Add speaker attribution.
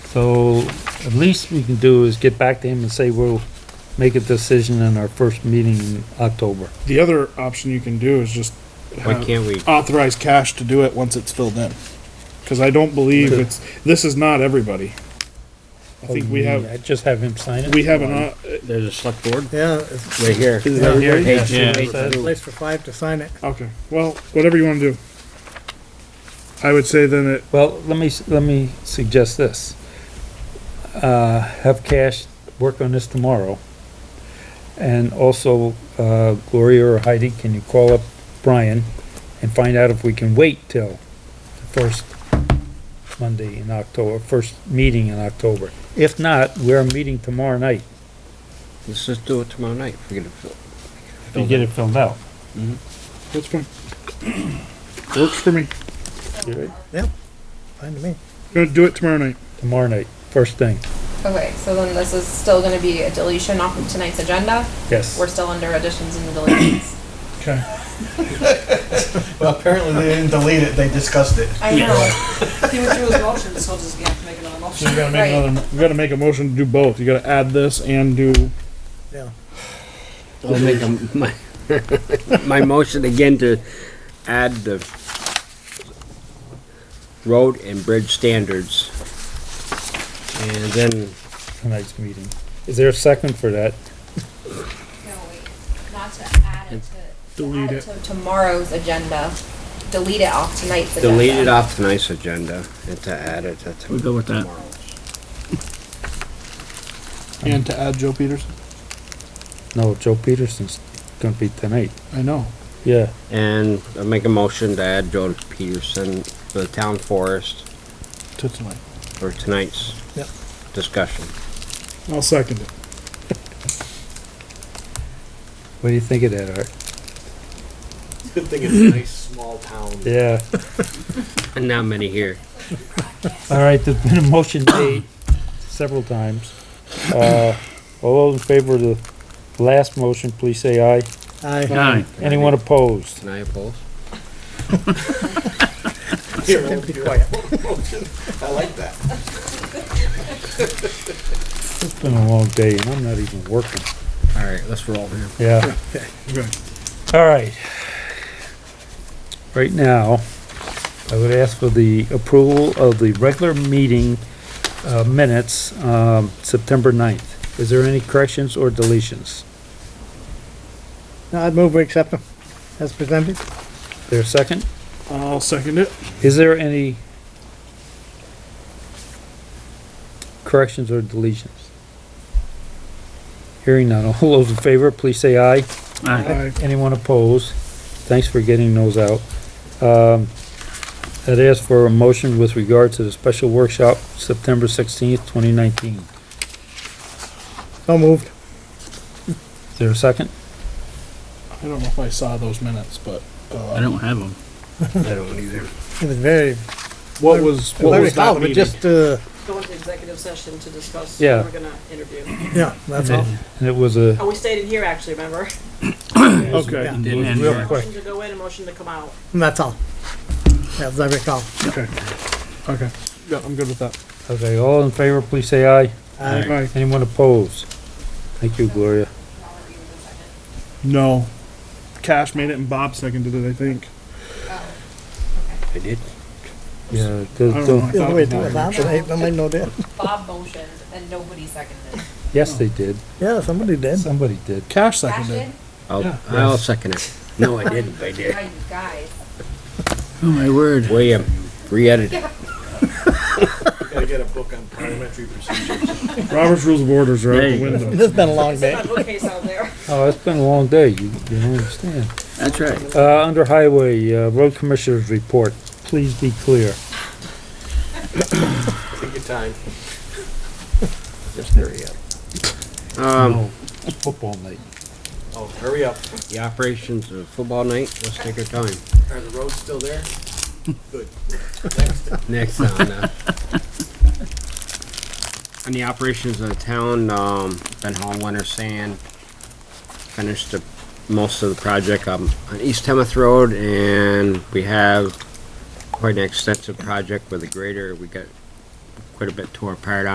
Speaker 1: So at least we can do is get back to him and say we'll make a decision in our first meeting in October.
Speaker 2: The other option you can do is just
Speaker 3: Why
Speaker 2: have-
Speaker 3: can't we?
Speaker 2: authorize cash to do it once it's filled in. Cause I don't believe
Speaker 1: Okay.
Speaker 2: it's, this is not everybody. I think we have,
Speaker 1: I Just have him sign it?
Speaker 2: we have an, uh, au-
Speaker 3: There's a select board
Speaker 4: Yeah, it's
Speaker 3: right here.
Speaker 2: is that here?
Speaker 3: Page
Speaker 1: Yeah.
Speaker 3: two.
Speaker 1: Yeah.
Speaker 4: a place for five to sign it.
Speaker 2: Okay, well, whatever you wanna do. I would say then it,
Speaker 1: Well, let me, s- let me suggest this. Uh, have Cash work on this tomorrow. And also, uh, Gloria or Heidi, can you call up Brian and find out if we can wait till the first Monday in October, first meeting in October? If not, we're meeting tomorrow night.
Speaker 3: Let's just do it tomorrow night. We're gonna fill.
Speaker 1: You get it filled out.
Speaker 2: that's fine. Works for me.
Speaker 4: Fine to me.
Speaker 2: Gonna do it tomorrow night.
Speaker 1: Tomorrow night, first thing,
Speaker 5: Okay, so then this is still gonna be a deletion off of tonight's agenda.
Speaker 1: yes.
Speaker 5: We're still under additions and deletions.
Speaker 2: Okay.
Speaker 6: Well, apparently they didn't delete it, they discussed it.
Speaker 7: I know. He withdrew his motion, so just gonna have to make another
Speaker 2: So you
Speaker 7: motion.
Speaker 2: gotta
Speaker 5: Right.
Speaker 2: make another, you gotta make a motion to do both. You gotta add this and do,
Speaker 3: I'll make a- my, my motion again to add the road and bridge standards. And then
Speaker 1: Tonight's meeting. Is there a second for that?
Speaker 5: No, wait, not to add it to, to
Speaker 2: Delete
Speaker 5: add
Speaker 2: it.
Speaker 5: it to tomorrow's agenda. Delete it off tonight's agenda.
Speaker 3: delete it off tonight's agenda and to add it to
Speaker 8: We'll go with that.
Speaker 3: tomorrow's.
Speaker 2: and to add Joe Peterson.
Speaker 1: No, Joe Peterson's gonna be tonight.
Speaker 2: I know.
Speaker 1: Yeah.
Speaker 3: And I'll make a motion to add Joe Peterson to the town forest
Speaker 2: To tonight.
Speaker 3: for tonight's
Speaker 4: Yep.
Speaker 3: discussion.
Speaker 2: I'll second it.
Speaker 1: What do you think of that, Art?
Speaker 6: Good thing it's a nice, small town.
Speaker 1: Yeah.
Speaker 3: And not many here.
Speaker 1: All right, there's been a motion made several times. Uh, all those in favor of the last motion, please say aye.
Speaker 4: I,
Speaker 8: Aye.
Speaker 1: Anyone opposed?
Speaker 3: Can I oppose?
Speaker 6: Here, we'll do it. I like that.
Speaker 1: It's been a long day and I'm not even working.
Speaker 3: All right, let's roll here.
Speaker 1: Yeah.
Speaker 2: Okay.
Speaker 1: All right. Right now, I would ask for the approval of the regular meeting, uh, minutes, um, September 9th. Is there any corrections or deletions?
Speaker 4: no, I'd move we accept them as presented.
Speaker 1: There a second?
Speaker 2: I'll second it.
Speaker 1: Is there any corrections or deletions? Hearing none, all those in favor, please say aye.
Speaker 8: Aye.
Speaker 2: Aye.
Speaker 1: Anyone opposed? Thanks for getting those out. Um, I'd ask for a motion with regard to the special workshop, September sixteenth, twenty nineteen.
Speaker 4: So moved.
Speaker 1: Is there a second?
Speaker 2: I don't know if I saw those minutes, but,
Speaker 8: I
Speaker 2: uh,
Speaker 8: don't have them.
Speaker 3: I don't either.
Speaker 4: It was very,
Speaker 2: what was, what
Speaker 4: very
Speaker 2: was that
Speaker 4: solid, but
Speaker 2: meeting?
Speaker 4: just, uh,
Speaker 7: Go into executive session to discuss who
Speaker 1: Yeah.
Speaker 7: we're gonna interview.
Speaker 4: yeah, that's all.
Speaker 1: And it was a,
Speaker 7: Oh, we stayed in here actually, remember?
Speaker 2: Okay,
Speaker 4: Yeah,
Speaker 8: Didn't end
Speaker 1: real
Speaker 8: here.
Speaker 1: quick,
Speaker 7: Motion to go in and motion to come out.
Speaker 4: and that's all. Yeah, As I recall.
Speaker 2: okay, okay. Yeah, I'm good with that.
Speaker 1: okay, all in favor, please say aye.
Speaker 4: Aye.
Speaker 2: Aye.
Speaker 1: Anyone opposed? Thank you, Gloria.
Speaker 2: No. Cash made it and Bob seconded it, I think.
Speaker 3: I did.
Speaker 1: Yeah.
Speaker 2: I don't know. I
Speaker 4: The
Speaker 2: thought
Speaker 4: other way
Speaker 2: it
Speaker 4: to do
Speaker 2: was
Speaker 4: it,
Speaker 2: Bob.
Speaker 4: I I might know that.
Speaker 5: Bob motioned and nobody seconded.
Speaker 1: Yes, they did.
Speaker 4: Yeah, somebody did.
Speaker 1: Somebody did.
Speaker 2: Cash
Speaker 5: Cash
Speaker 2: seconded it.
Speaker 5: in?
Speaker 3: I'll, I'll second it. No, I didn't, I did.
Speaker 5: Right, you guys.
Speaker 8: Oh, my word.
Speaker 3: William, re-edit it.
Speaker 6: Gotta get a book on parliamentary procedures.
Speaker 2: Robert's Rules of Orders are out
Speaker 8: There
Speaker 2: the
Speaker 8: you go.
Speaker 2: window.
Speaker 4: This has been a long day.
Speaker 7: Got a bookcase out there.
Speaker 1: Oh, it's been a long day, you, you don't understand.
Speaker 8: That's right.
Speaker 1: Uh, under highway, uh, road commissioners report, please be clear.
Speaker 6: Take your time. Just hurry up.
Speaker 3: Um,
Speaker 1: It's Football night.
Speaker 6: Oh, hurry up.
Speaker 3: the operations of football night, let's take our time.
Speaker 6: Are the roads still there? Good.
Speaker 3: Next on, uh, on the operations of the town, um, been hauling winter sand. Finished the, most of the project um, on East Temeth Road and we have quite an extensive project with a grader. We got quite a bit tore apart